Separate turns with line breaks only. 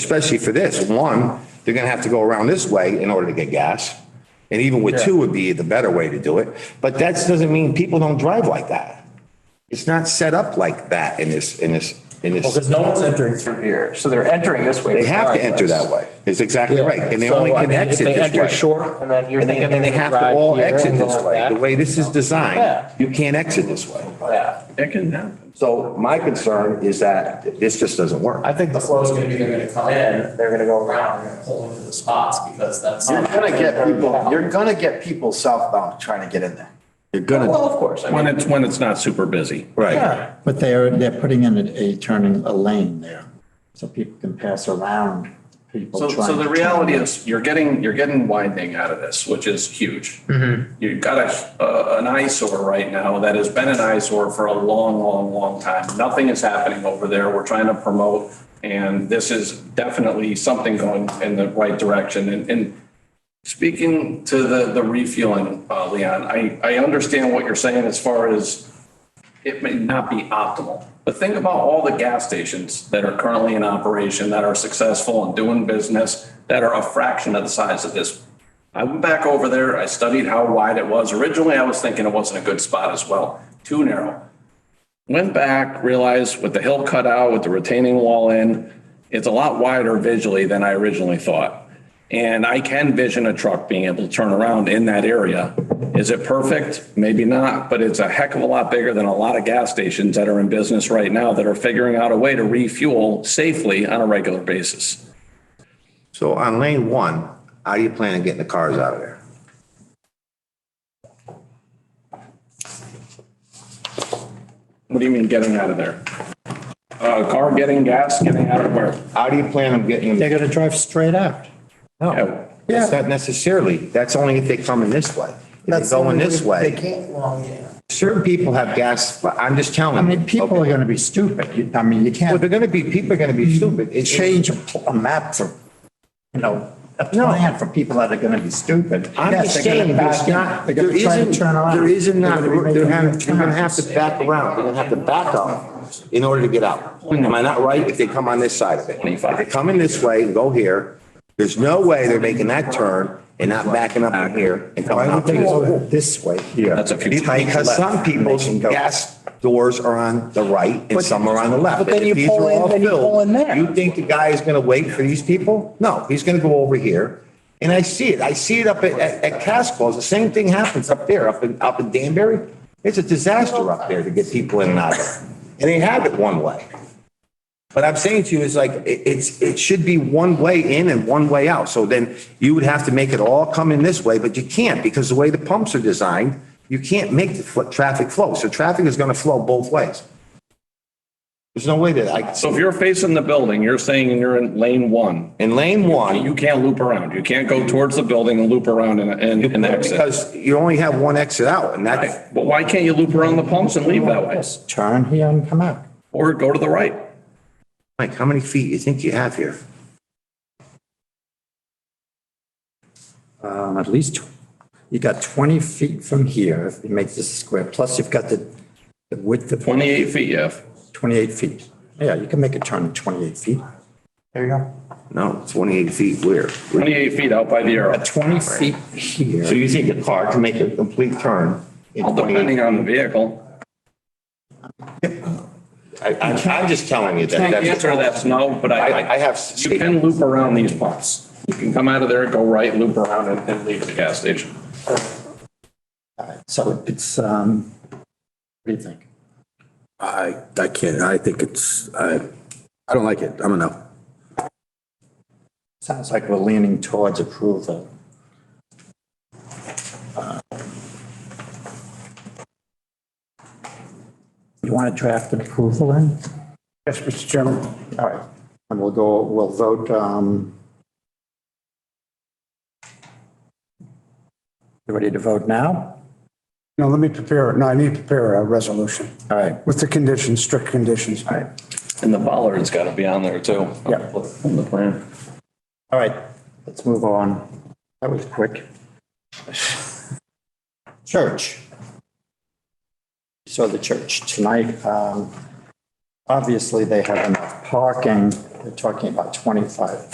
especially for this. One, they're gonna have to go around this way in order to get gas. And even with two would be the better way to do it. But that doesn't mean people don't drive like that. It's not set up like that in this, in this, in this.
Because no one's entering through here, so they're entering this way.
They have to enter that
regardless.
way. It's exactly right. And they
So,
only
I
can
mean, if
exit
they enter
this way.
short, and then you're
And they,
thinking.
and they
can
have to
drive
all
here and
exit
go
this
like
way.
that.
The way this is
Yeah.
designed, you can't exit this way.
Yeah,
It can happen.
So my concern is that this just doesn't work.
I think the flow is gonna be, they're gonna come in, they're gonna go around, they're gonna pull into the spots because that's.
You're gonna get people, you're gonna get people southbound trying to get in there.
You're gonna,
Well, of course, I
When
mean,
it's, when it's not super busy.
right.
yeah,
But they're, they're putting in a, a turning, a lane there, so people can pass around people
So,
trying.
so the
to turn
reality
left.
is, you're getting, you're getting widening out of this, which is huge. You've got a, uh, an eyesore right now that has been an eyesore for a long, long, long time. Nothing is happening over there. We're trying to promote, and this is definitely something going in the right direction. And, and speaking to the, the refueling, uh, Leon, I, I understand what you're saying as far as it may not be optimal. But think about all the gas stations that are currently in operation, that are successful and doing business, that are a fraction of the size of this. I went back over there, I studied how wide it was. Originally, I was thinking it wasn't a good spot as well, too narrow. Went back, realized with the hill cut out, with the retaining wall in, it's a lot wider visually than I originally thought. And I can vision a truck being able to turn around in that area. Is it perfect? Maybe not, but it's a heck of a lot bigger than a lot of gas stations that are in business right now that are figuring out a way to refuel safely on a regular basis.
So on lane one, how do you plan on getting the cars out of there?
What do you mean getting out of there? Uh, car getting gas, getting out of where?
How do you plan on getting them?
They're gonna drive straight out.
Yeah.
It's not necessarily, that's only if they come in this way. If they go in this
They
way,
can't long, yeah.
certain people have gas, but I'm just telling
I
you.
mean, people are
okay?
gonna be stupid, You- I mean, you
Well, they're
can't
gonna be, people are gonna
Mm-hmm.
be stupid. It- it-
change a pl- a map for, you know, a plan for people that are gonna be stupid.
I'm
Yes,
just
they're gonna
saying, there's
back in.
not,
They're
there
gonna try to
isn't,
turn around.
there isn't
They're
not,
gonna be
they're
making
having,
U-turns.
they're gonna have to back around, they're gonna have to back up in order to get out. Am I not right? If they come on this side of it. If they come in this way and go here, there's no way they're making that turn and not backing up in here and coming
Why
out
would
to
they
this
go
way.
this way here?
That's a few.
Because some people's gas doors are on the right and some are on the left.
but then you
If these
pull
are
in-
all
then you
filled,
pull in there.
You think the guy is going to wait for these people? No, he's going to go over here. And I see it. I see it up at, at at Casco's. The same thing happens up there, up in, up in Danbury. It's a disaster up there to get people in and out of. And they have it one way. But I'm saying to you is like, it, it's, it should be one way in and one way out. So then you would have to make it all come in this way, but you can't because the way the pumps are designed, you can't make the fl- traffic flow. So traffic is going to flow both ways. There's no way that I,
So if you're facing the building, you're saying you're in lane one,
in lane one,
you can't loop around. You can't go towards the building and loop around and, and and exit.
because you only have one exit out and that's,
But why can't you loop around the pumps and leave that way?
Turn here and come out.
Or go to the right?
Mike, how many feet you think you have here?
um, at least, tw- you got 20 feet from here, if you make this a square, plus you've got the the width of
28 feet, yeah.
28 feet. Yeah, you can make a turn at 28 feet.
There you go.
No, 28 feet where?
28 feet out by the arrow.
At 20 feet
So
here,
you think a car can make a complete turn in
Well,
28
Depending on the vehicle.
I, I- I'm just telling you that.
The
that's-
answer to that's no, but
I, I
I,
have.
you can loop around these pumps. You can come out of there, go right, loop around and, and leave the gas station.
so it's, um, what do you think?
I, I can't, I think it's, I, I don't like it, I'm a no.
Sounds like we're leaning towards approval. Uh, You want to draft an approval in?
Yes, Mr. Chairman.
All right, and we'll go, we'll vote, um. You ready to vote now?
No, let me prepare, no, I need to prepare a resolution
All right.
with the conditions, strict conditions.
All right,
And the bollard's got to be on there too.
Yeah.
On the plan.
all right, let's move on. That was quick. Church. Saw the church tonight, um, Obviously, they have enough parking. They're talking about 25